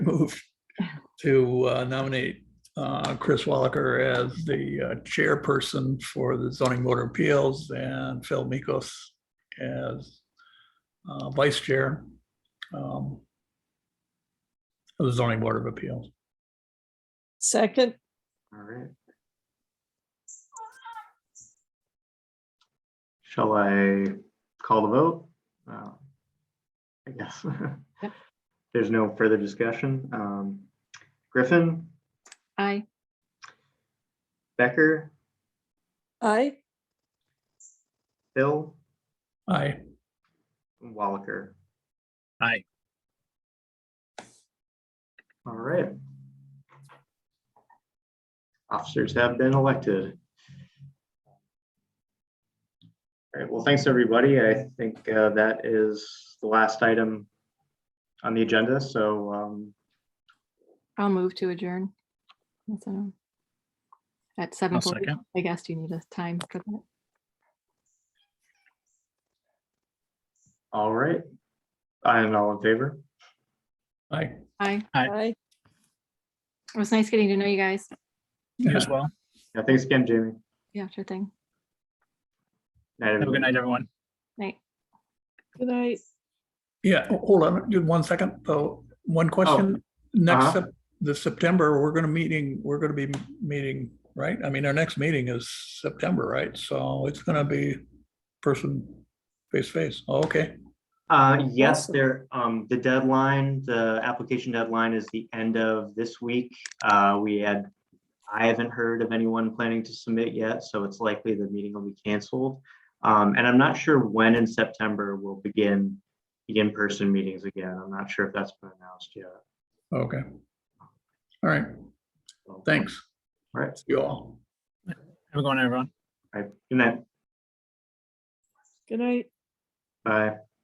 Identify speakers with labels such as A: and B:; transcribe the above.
A: move to uh, nominate uh, Chris Wallaker as the uh, chairperson for the zoning board of appeals and Phil Mikos as uh, vice chair um, of the zoning board of appeals.
B: Second,
C: All right. Shall I call the vote? Uh, I guess.
B: Yep.
C: There's no further discussion. Um, Griffin,
D: Aye.
C: Becker,
B: aye.
C: Phil,
A: Aye.
C: and Wallaker.
E: Aye.
C: All right. Officers have been elected. All right, well, thanks, everybody. I think uh, that is the last item on the agenda, so um,
D: I'll move to adjourn. That's, um, At seven forty,
E: second.
D: I guess you need a time for that.
C: all right. I'm all in favor.
A: Aye.
D: Aye.
E: Aye.
B: Aye.
D: It was nice getting to know you guys.
E: You as well.
C: Yeah, thanks again, Jamie.
D: Yeah, sure thing.
C: Night,
E: Have a
C: everybody.
E: good night, everyone.
D: Night.
B: Good night.
A: Yeah, ho- Oh, hold on, just one second, though. One question. Next,
C: uh-huh.
A: Sep- the September, we're gonna meeting, we're gonna be meeting, right? I mean, our next meeting is September, right? So it's gonna be person face to face. Oh, Okay,
C: Uh, yes,
B: Awesome.
C: there, um, the deadline, the application deadline is the end of this week. Uh, we had, I haven't heard of anyone planning to submit yet, so it's likely the meeting will be canceled. Um, and I'm not sure when in September we'll begin the in-person meetings again. I'm not sure if that's been announced yet.
A: okay. All right,
C: So,
A: thanks,
C: All right,
A: you all.
E: Have a good one, everyone.
C: all right, good night,
B: Good night.
C: bye.